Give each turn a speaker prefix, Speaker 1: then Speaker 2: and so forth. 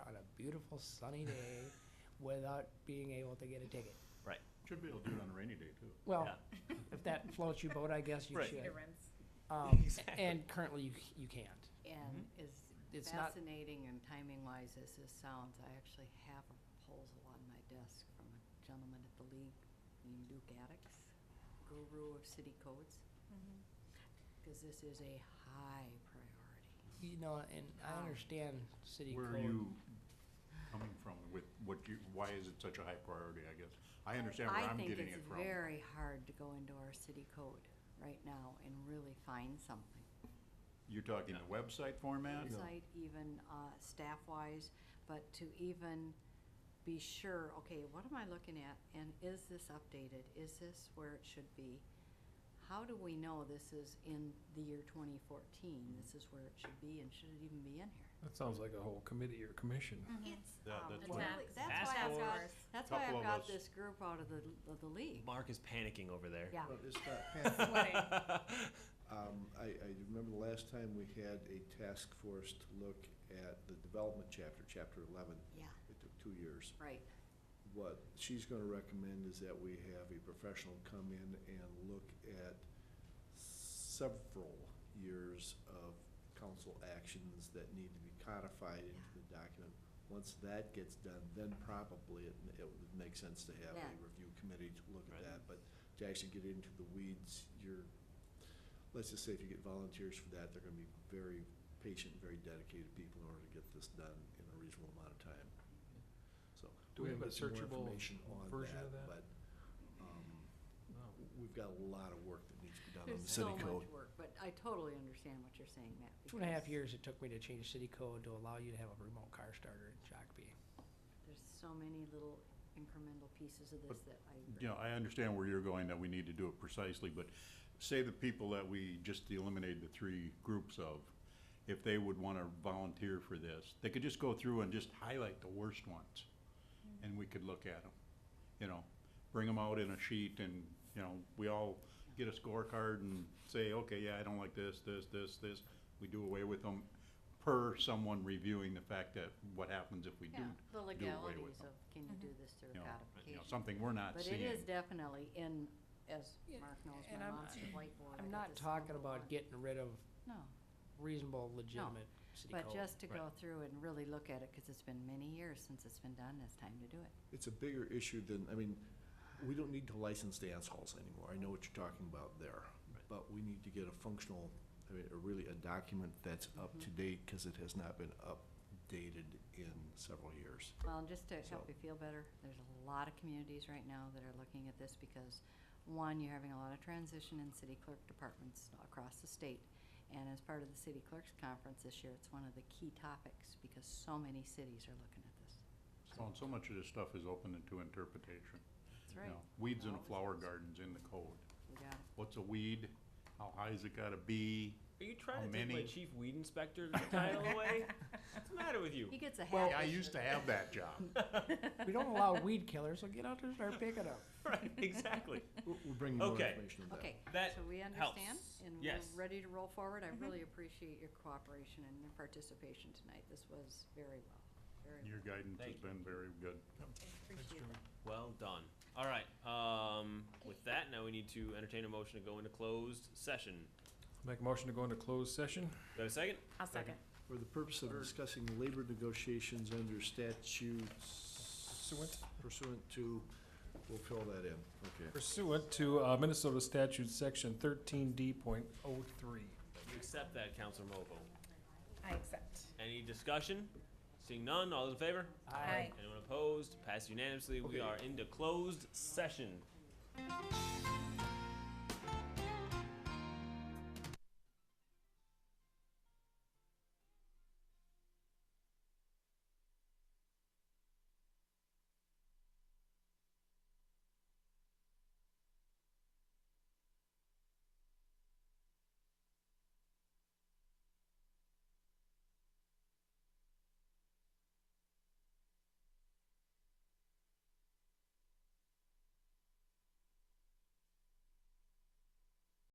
Speaker 1: beautiful sunny day without being able to get a ticket.
Speaker 2: Right.
Speaker 3: Should be able to do it on a rainy day, too.
Speaker 1: Well,
Speaker 2: Yeah.
Speaker 1: if that floats your boat, I guess you
Speaker 2: Right.
Speaker 1: should.
Speaker 4: It runs.
Speaker 1: Um,
Speaker 2: Exactly.
Speaker 1: And currently, you, c- you can't.
Speaker 5: And as
Speaker 1: Mm-hmm. It's not-
Speaker 5: fascinating and timing-wise as this sounds, I actually have a proposal on my desk from a gentleman at the league named Duke Addicts, guru of city codes,
Speaker 1: Mm-hmm.
Speaker 5: because this is a high priority.
Speaker 1: You know, and I
Speaker 5: Wow.
Speaker 1: understand city
Speaker 3: Where
Speaker 1: code.
Speaker 3: are you coming from with what you, why is it such a high priority, I guess? I understand where I'm getting it from.
Speaker 5: I think it's very hard to go into our city code right now and really find something.
Speaker 3: You're talking the website format?
Speaker 5: Website, even uh, staff-wise, but to even be sure, okay, what am I looking at? And is this updated? Is this where it should be? How do we know this is in the year 2014? This is where it should be and should it even be in here?
Speaker 6: That sounds like a whole committee or commission.
Speaker 4: It's
Speaker 3: Yeah,
Speaker 5: Um,
Speaker 3: that's
Speaker 4: what-
Speaker 5: really-
Speaker 4: Task-
Speaker 5: That's why
Speaker 2: task
Speaker 5: I've got,
Speaker 4: force.
Speaker 5: that's why
Speaker 3: Couple
Speaker 5: I've
Speaker 3: of
Speaker 5: got
Speaker 3: us.
Speaker 5: this group out of the, of the league.
Speaker 2: Mark is panicking over there.
Speaker 5: Yeah.
Speaker 7: Well, it's not-
Speaker 4: sweating.
Speaker 7: um, I, I remember the last time we had a task force to look at the development chapter, chapter eleven.
Speaker 5: Yeah,
Speaker 7: It took two years.
Speaker 5: right.
Speaker 7: What she's gonna recommend is that we have a professional come in and look at several years of council actions that need to be codified into the document. Once that gets done, then probably it, it would make sense to have a
Speaker 5: Yeah.
Speaker 7: review committee to look
Speaker 2: Right.
Speaker 7: at that. But to actually get into the weeds, you're, let's just say if you get volunteers for that, they're gonna be very patient, very dedicated people in order to get this done in a reasonable amount of time. So.
Speaker 6: Do we have
Speaker 7: we'll
Speaker 6: a
Speaker 7: get some more
Speaker 6: searchable
Speaker 7: information on
Speaker 6: version of that?
Speaker 7: But, um,
Speaker 6: No.
Speaker 7: we've got a lot of work that needs to be done on
Speaker 5: There's
Speaker 7: the
Speaker 5: so
Speaker 7: city code.
Speaker 5: much work, but I totally understand what you're saying, Matt.
Speaker 1: Two and a half
Speaker 5: because
Speaker 1: years it took me to change city code to allow you to have a remote car starter in Shakopee.
Speaker 5: There's so many little incremental pieces of this
Speaker 3: But,
Speaker 5: that I.
Speaker 3: You know, I understand where you're going, that we need to do it precisely, but say the people that we just eliminated the three groups of, if they would wanna volunteer for this, they could just go through and just highlight the worst ones,
Speaker 5: Mm-hmm.
Speaker 3: and we could look at them, you know? Bring them out in a sheet and, you know, we all get a scorecard and say, okay, yeah, I don't like this, this, this, this. We do away with them per someone reviewing the fact that what happens if we do,
Speaker 5: Yeah, the
Speaker 3: do away
Speaker 5: legalities
Speaker 3: with them.
Speaker 5: of can you do
Speaker 1: Mm-hmm.
Speaker 5: this through
Speaker 3: You know, you know,
Speaker 5: codification?
Speaker 3: something we're not
Speaker 5: But
Speaker 3: seeing.
Speaker 5: it is definitely in, as
Speaker 1: Yeah,
Speaker 5: Mark knows,
Speaker 1: and
Speaker 5: my
Speaker 1: I'm-
Speaker 5: monster whiteboard. I
Speaker 1: I'm
Speaker 5: got
Speaker 1: not
Speaker 5: this
Speaker 1: talking
Speaker 5: little
Speaker 1: about
Speaker 5: one.
Speaker 1: getting rid of
Speaker 5: No,
Speaker 1: reasonable, legitimate city code.
Speaker 5: but just to
Speaker 2: Right.
Speaker 5: go through and really look at it, because it's been many years since it's been done, it's time to do it.
Speaker 7: It's a bigger issue than, I mean, we don't need to license dance halls anymore. I know what you're talking about there.
Speaker 2: Right.
Speaker 7: But we need to get a functional, I mean, a really a document that's up
Speaker 5: Mm-hmm.
Speaker 7: to date because it has not been updated in several years.
Speaker 5: Well, and just to help
Speaker 7: So-
Speaker 5: you feel better, there's a lot of communities right now that are looking at this because, one, you're having a lot of transition in city clerk departments across the state. And as part of the city clerks conference this year, it's one of the key topics because so many cities are looking at this.
Speaker 3: Well, and so much of this stuff is open to interpretation.
Speaker 5: That's
Speaker 3: you
Speaker 5: right.
Speaker 3: know. Weeds in
Speaker 5: It
Speaker 3: a
Speaker 5: always
Speaker 3: flower
Speaker 5: is.
Speaker 3: garden's in the code.
Speaker 5: You got it.
Speaker 3: What's a weed? How high's it gotta be?
Speaker 2: Are you trying
Speaker 3: How
Speaker 2: to take my
Speaker 3: many?
Speaker 2: chief weed inspector title away? What's the matter with you?
Speaker 5: He gets a
Speaker 3: Yeah,
Speaker 5: hat.
Speaker 3: I used to have that job.
Speaker 1: We don't allow weed killers, so get out there and start picking up.
Speaker 2: Right, exactly.
Speaker 7: We'll we'll bring you more
Speaker 2: Okay.
Speaker 7: information on that.
Speaker 5: Okay,
Speaker 2: That
Speaker 5: so we understand
Speaker 2: helps. Mm-hmm.
Speaker 5: and we're
Speaker 2: Yes.
Speaker 5: ready to roll forward. I really appreciate your cooperation and your participation tonight. This was very well, very well.
Speaker 3: Your guidance has
Speaker 2: Thank you.
Speaker 3: been very good.
Speaker 4: Appreciate that.
Speaker 2: Well done. All right. Um, with that, now we need to entertain a motion to go into closed session.
Speaker 6: Make a motion to go into closed session?
Speaker 2: Do I have a second?
Speaker 4: I'll second.
Speaker 7: For the purpose of discussing labor negotiations under statutes.
Speaker 6: Pursuant.
Speaker 7: Pursuant to, we'll fill that in, okay.
Speaker 6: Pursuant to uh, Minnesota statute section thirteen D point oh three.
Speaker 2: You accept that, Counselor Mopo.
Speaker 4: I accept.
Speaker 2: Any discussion? Seeing none, all those in favor?
Speaker 4: Aye.
Speaker 2: Anyone opposed? Passed unanimously. We
Speaker 7: Okay.
Speaker 2: are into closed session.